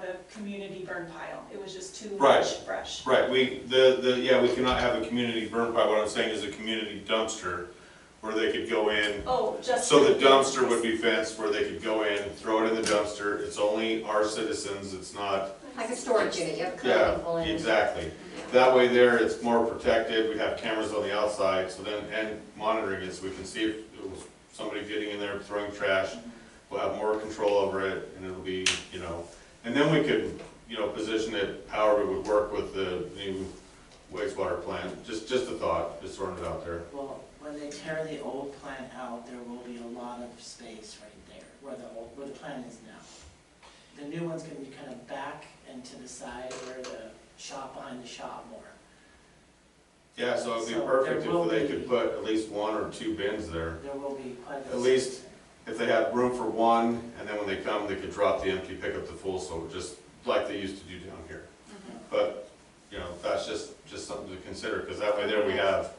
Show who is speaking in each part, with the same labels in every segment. Speaker 1: the community burn pile. It was just too
Speaker 2: Right.
Speaker 1: much brush.
Speaker 2: Right, we, the, the, yeah, we cannot have a community burn pile, what I'm saying is a community dumpster, where they could go in,
Speaker 1: Oh, just.
Speaker 2: so the dumpster would be fenced, where they could go in, throw it in the dumpster, it's only our citizens, it's not,
Speaker 3: Like a storage unit, you have a couple
Speaker 2: yeah,
Speaker 3: people in.
Speaker 2: exactly.
Speaker 3: Yeah.
Speaker 2: That way there, it's more protected, we have cameras on the outside, so then, and monitoring it, so we can see if it was somebody getting in there throwing trash. We'll have more control over it, and it'll be, you know, and then we could, you know, position it however it would work with the new wastewater plant. Just, just a thought, just throwing it out there.
Speaker 4: Well, when they tear the old plant out, there will be a lot of space right there, where the old, where the plant is now. The new one's gonna be kind of back and to the side where the shop, behind the shop more.
Speaker 2: Yeah, so it'd be
Speaker 4: So there
Speaker 2: perfect
Speaker 4: will
Speaker 2: if they
Speaker 4: be-
Speaker 2: could put at least one or two bins there.
Speaker 4: There will be quite a bit.
Speaker 2: At
Speaker 4: of
Speaker 2: least-
Speaker 4: space there.
Speaker 2: If they have room for one, and then when they come, they could drop the empty, pick up the full, so just like they used to do down here. But, you know, that's just, just something to consider, because that way there we have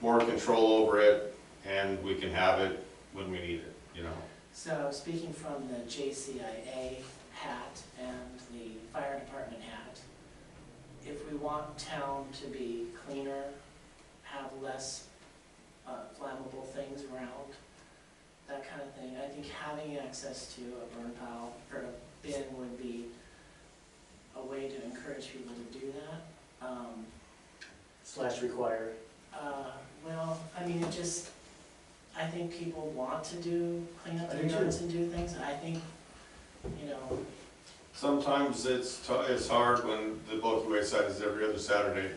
Speaker 2: more control over it, and we can have it when we need it, you know?
Speaker 4: So speaking from the JCIA hat and the fire department hat, if we want town to be cleaner, have less uh, flammable things around, that kind of thing, I think having access to a burn pile or a bin would be a way to encourage people to do that. Um,
Speaker 5: slash require.
Speaker 4: uh, Well, I mean, it just, I think people want to do, clean up
Speaker 5: I
Speaker 4: their
Speaker 5: do too.
Speaker 4: yards and do things, I think, you know,
Speaker 2: Sometimes it's, tou- it's hard when the bulky waste side is every other Saturday.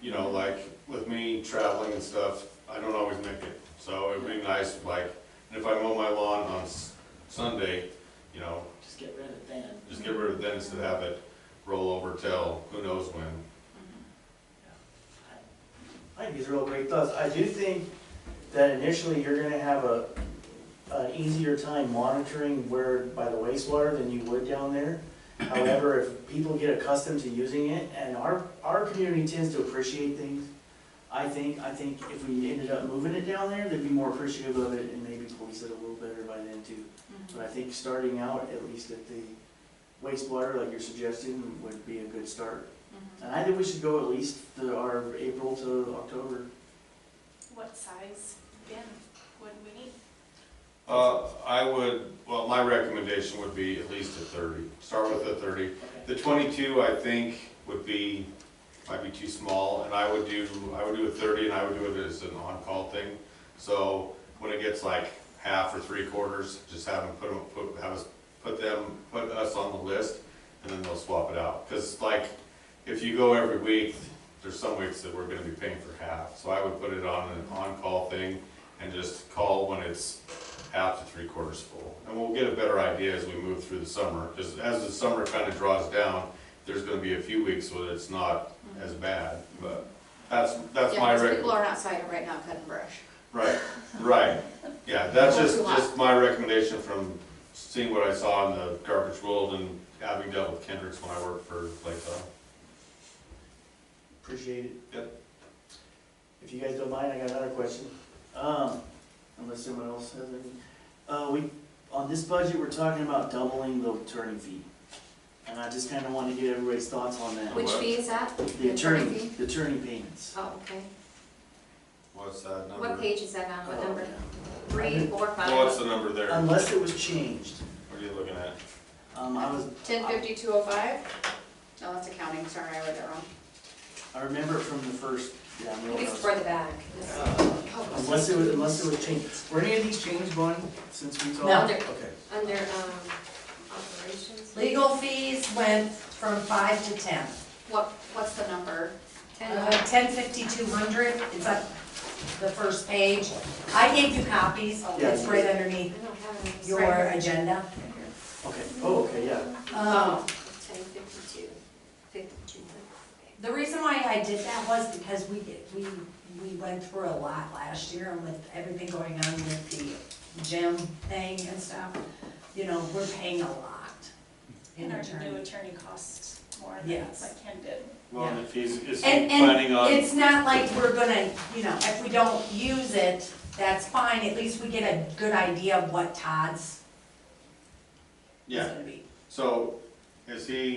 Speaker 2: You know, like with me traveling and stuff, I don't always make it. So it'd be nice, like, and if I mow my lawn on S- Sunday, you know,
Speaker 4: just get rid of it then.
Speaker 2: just get rid of it then instead of have it roll over till who knows when.
Speaker 5: I think these are all great thoughts. I do think that initially you're gonna have a, an easier time monitoring where, by the wastewater than you would down there. However, if people get accustomed to using it, and our, our community tends to appreciate things, I think, I think if we ended up moving it down there, they'd be more appreciative of it and maybe police it a little better by then too.
Speaker 1: Mm-hmm,
Speaker 5: But I think starting out, at least at the wastewater, like you're suggesting, would be a good start.
Speaker 1: mm-hmm.
Speaker 5: And I think we should go at least the, our April to October.
Speaker 1: What size bin would we need?
Speaker 2: Uh, I would, well, my recommendation would be at least a thirty. Start with a thirty.
Speaker 4: Okay.
Speaker 2: The twenty-two, I think, would be, might be too small, and I would do, I would do a thirty, and I would do it as an on-call thing. So when it gets like half or three quarters, just have them put them, put, have us, put them, put us on the list, and then they'll swap it out. Cause like, if you go every week, there's some weeks that we're gonna be paying for half, so I would put it on an on-call thing and just call when it's half to three quarters full. And we'll get a better idea as we move through the summer, because as the summer kind of draws down, there's gonna be a few weeks where it's not as bad, but that's, that's
Speaker 6: Yeah,
Speaker 2: my
Speaker 6: because
Speaker 2: rec-
Speaker 6: people are outside right now cutting brush.
Speaker 2: right, right. Yeah, that's
Speaker 6: Well,
Speaker 2: just,
Speaker 6: it's a lot.
Speaker 2: just my recommendation from seeing what I saw in the garbage world and having dealt with Kendrick's when I worked for uh, Playtime.
Speaker 5: Appreciate it.
Speaker 2: Yep.
Speaker 5: If you guys don't mind, I got another question. Um, unless someone else has any. Uh, we, on this budget, we're talking about doubling the attorney fee. And I just kinda wanna get everybody's thoughts on that.
Speaker 6: Which
Speaker 2: what?
Speaker 6: fee is that?
Speaker 5: The attorney,
Speaker 6: fee?
Speaker 5: the attorney payments.
Speaker 6: Oh, okay.
Speaker 2: What's that number? Uh,
Speaker 6: What page is that on? Uh, What
Speaker 5: Oh,
Speaker 6: number?
Speaker 5: yeah.
Speaker 6: Three, four,
Speaker 2: What's
Speaker 6: five?
Speaker 2: the number there? What
Speaker 5: Uh, Unless it was changed.
Speaker 2: are you looking at?
Speaker 5: Um, I was,
Speaker 6: Ten fifty, two oh five? No, that's accounting, sorry, I read that wrong.
Speaker 5: I remember it from the first, yeah, I know.
Speaker 6: Maybe it's toward the back. This- oh, this
Speaker 5: Uh, Unless it
Speaker 6: is
Speaker 5: was, unless it was changed. Were any of these changed, Bonnie, since we talked?
Speaker 6: No.
Speaker 5: Okay.
Speaker 6: Under, um, operations?
Speaker 7: Legal fees went from five to ten.
Speaker 6: What, what's the number? Ten,
Speaker 7: Uh, ten fifty, two hundred, it's on the first page. I gave you copies, it's right
Speaker 6: I
Speaker 7: underneath
Speaker 6: don't have any.
Speaker 7: your uh, agenda.
Speaker 5: Okay, oh, okay, yeah.
Speaker 7: Um,
Speaker 6: Ten fifty-two, fifty-two. okay.
Speaker 7: The reason why I did that was because we, did- we, we went through a lot last year and with everything going on with the gym thing and stuff, you know, we're paying a lot in
Speaker 1: And our new
Speaker 7: attorney.
Speaker 1: attorney costs more than
Speaker 7: Yes.
Speaker 1: like Ken did.
Speaker 7: Well, and
Speaker 2: if he's, is
Speaker 7: And, and it's not like we're gonna, you know, if we don't use it, that's fine, at least we get a good idea of what Todd's is
Speaker 2: Yeah,
Speaker 7: gonna be.
Speaker 2: so is he